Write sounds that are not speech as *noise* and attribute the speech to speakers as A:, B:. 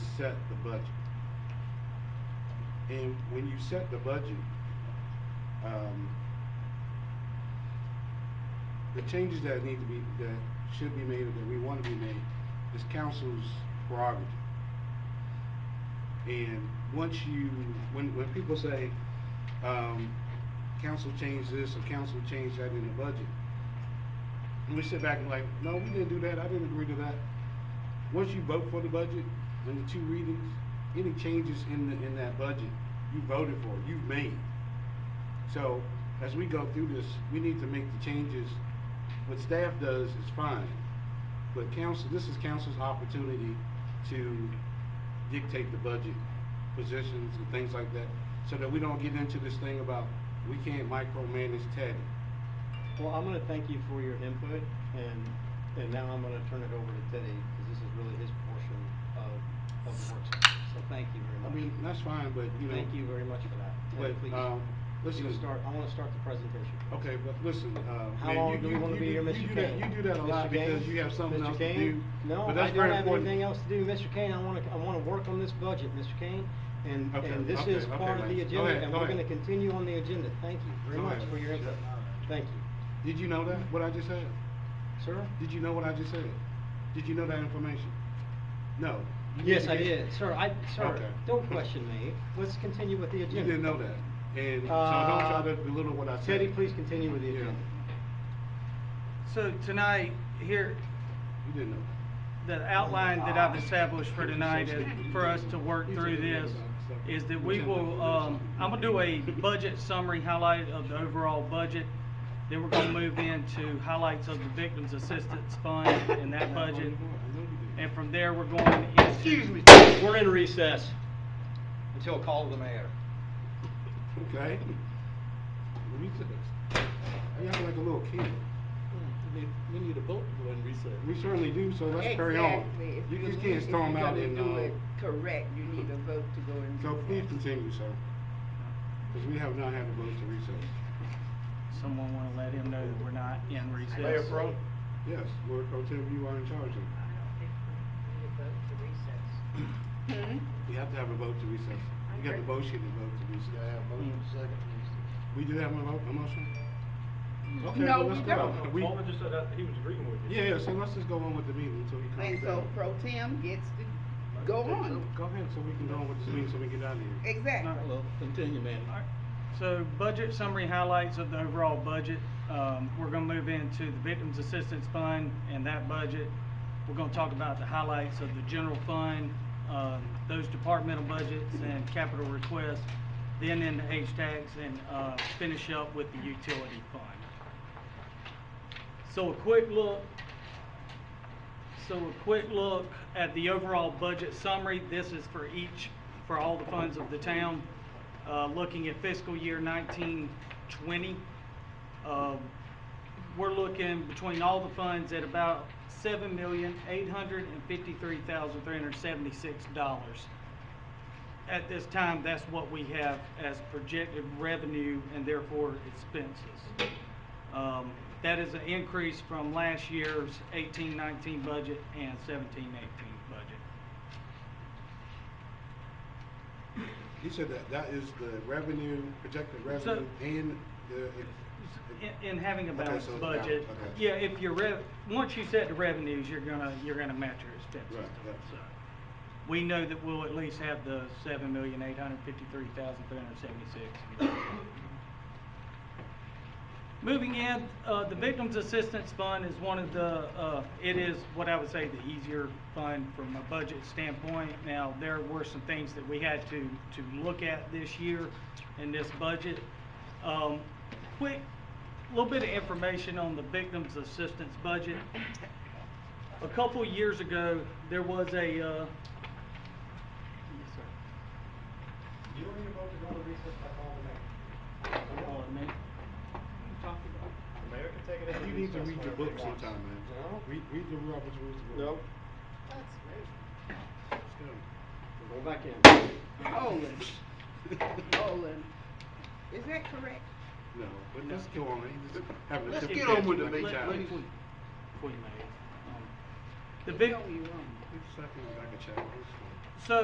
A: set the budget. And when you set the budget, um, the changes that need to be, that should be made, or that we want to be made, is council's prerogative. And once you, when, when people say, um, council changed this, or council changed that in the budget, and we sit back and like, no, we didn't do that, I didn't agree to that. Once you vote for the budget, in the two readings, any changes in the, in that budget, you voted for, you've made. So, as we go through this, we need to make the changes, what staff does is fine, but council, this is council's opportunity to dictate the budget positions and things like that, so that we don't get into this thing about, we can't micromanage Teddy.
B: Well, I'm gonna thank you for your input, and, and now I'm gonna turn it over to Teddy, because this is really his portion of, of the work session, so thank you very
A: I
B: much.
A: mean, that's fine, but, you know.
B: Thank you very much for that. Teddy,
A: But,
B: please.
A: um,
B: You
A: listen,
B: can start, I wanna start the presentation.
A: okay, but listen, uh.
B: How
A: man,
B: long
A: you-
B: do we
A: you-
B: wanna
A: you
B: be here,
A: do-
B: Mr.
A: you do that-
B: Kane?
A: You do that a
B: Mr.
A: lot because
B: Kane?
A: you have something
B: Mr.
A: else to
B: Kane?
A: do.
B: No,
A: but
B: I
A: that's
B: don't
A: very
B: have
A: important.
B: anything else to do, Mr. Kane, I wanna, I wanna work on this budget, Mr. Kane, and,
A: Okay,
B: and this
A: okay,
B: is
A: okay,
B: part of
A: Lance.
B: the
A: Go
B: agenda,
A: ahead,
B: and
A: go
B: we're
A: ahead.
B: gonna continue on the agenda, thank you very
A: Go
B: much
A: ahead.
B: for your input, thank you.
A: Did you know that, what I just said?
B: Sir?
A: Did you know what I just said? Did you know that information? No. You need
B: Yes,
A: to
B: I
A: get-
B: did, sir, I, sir,
A: Okay.
B: don't question me, let's continue with the
A: *laughs* You
B: agenda.
A: didn't know that, and so don't try to
B: Uh,
A: belittle what I said.
B: Teddy, please continue with the
A: Yeah.
B: agenda.
C: So tonight, here,
A: You didn't know
C: the outline that I've established for tonight is for us to work through this is that we will, um, I'm gonna do a budget summary highlight of the overall budget. Then we're gonna move into highlights of the Victims Assistance Fund *laughs* and that budget. And from there, we're going into.
B: Excuse me. We're in recess until call of the mayor.
A: that. Okay? We took this. You act like a little kid.
D: We need, we need a vote to go in recess.
A: We certainly do, so let's carry on.
E: Exactly. If
A: You just
E: need-
A: can't storm out
E: If
A: and,
E: you're gonna do
A: uh,
E: it correct, you need a vote to go and do
A: so
E: that.
A: please continue, sir. Because we have not had a vote to recess.
C: Someone wanna let him know that we're not in recess.
D: Mayor Pro,
A: Yes, Lord Pro Tem, you are in charge of
E: Hmm?
A: it. You have to have a vote to recess. You got to motion and vote to recess.
E: Mm.
A: We do have a vote, a motion? Okay,
E: Mm. No,
A: well,
E: we
A: let's go.
E: don't.
A: We-
D: Coleman just said that he was agreeing with you.
A: Yeah, yeah, so let's just go on with the meeting until he
E: And
A: comes
E: so
A: back.
E: pro tem gets to go on.
A: Go ahead, so we can go on with this meeting, so we can get out of here.
E: Exactly.
D: Well, continue, man.
C: Alright, So budget summary highlights of the overall budget. Um, we're gonna move into the Victims Assistance Fund and that budget. We're gonna talk about the highlights of the general fund, um, those departmental budgets and capital requests, then into H-Tax and, uh, finish up with the utility fund. So a quick look, so a quick look at the overall budget summary. This is for each, for all the funds of the town. Uh, looking at fiscal year nineteen twenty, um, we're looking between all the funds at about seven million, eight hundred and fifty-three thousand, three hundred and seventy-six dollars. At this time, that's what we have as projected revenue and therefore expenses. Um, That is an increase from last year's eighteen nineteen budget and seventeen eighteen budget.
A: He said that that is the revenue, projected revenue and the.
C: In, in having a
A: Okay,
C: balanced
A: so it's balanced,
C: budget,
A: okay.
C: yeah, if your rev, once you set the revenues, you're gonna, you're gonna match your
A: Right,
C: expenses to
A: yeah.
C: it, so. We know that we'll at least have the seven million, eight hundred fifty-three thousand, three hundred seventy-six. Moving in, uh, the Victims Assistance Fund is one of the, uh, it is what I would say the easier fund from a budget standpoint. Now, there were some things that we had to, to look at this year in this budget. Um, quick, little bit of information on the Victims Assistance budget. A couple years ago, there was a, uh, yes, sir.
B: You don't need a vote to go to recess by call of the mayor. The mayor can take it as a
A: You need to
B: recess
A: read your
B: whenever he
A: book
B: wants.
A: sometime, man.
B: No.
A: Read, read the Robert's Rules of Order.
B: No, we're going back in.
E: Nolan,
D: *laughs* Oh,
E: Nolan, is that correct?
A: No, but let's go on, he's just having a.
D: Let's
A: tip
D: get
A: tantrum
D: on with the
A: like a
D: meeting,
A: child.
D: please.
C: Queen Mary. Um, The
E: You
C: Vic,
E: know you wrong.
A: He's sucking like a child. It's fine.
C: so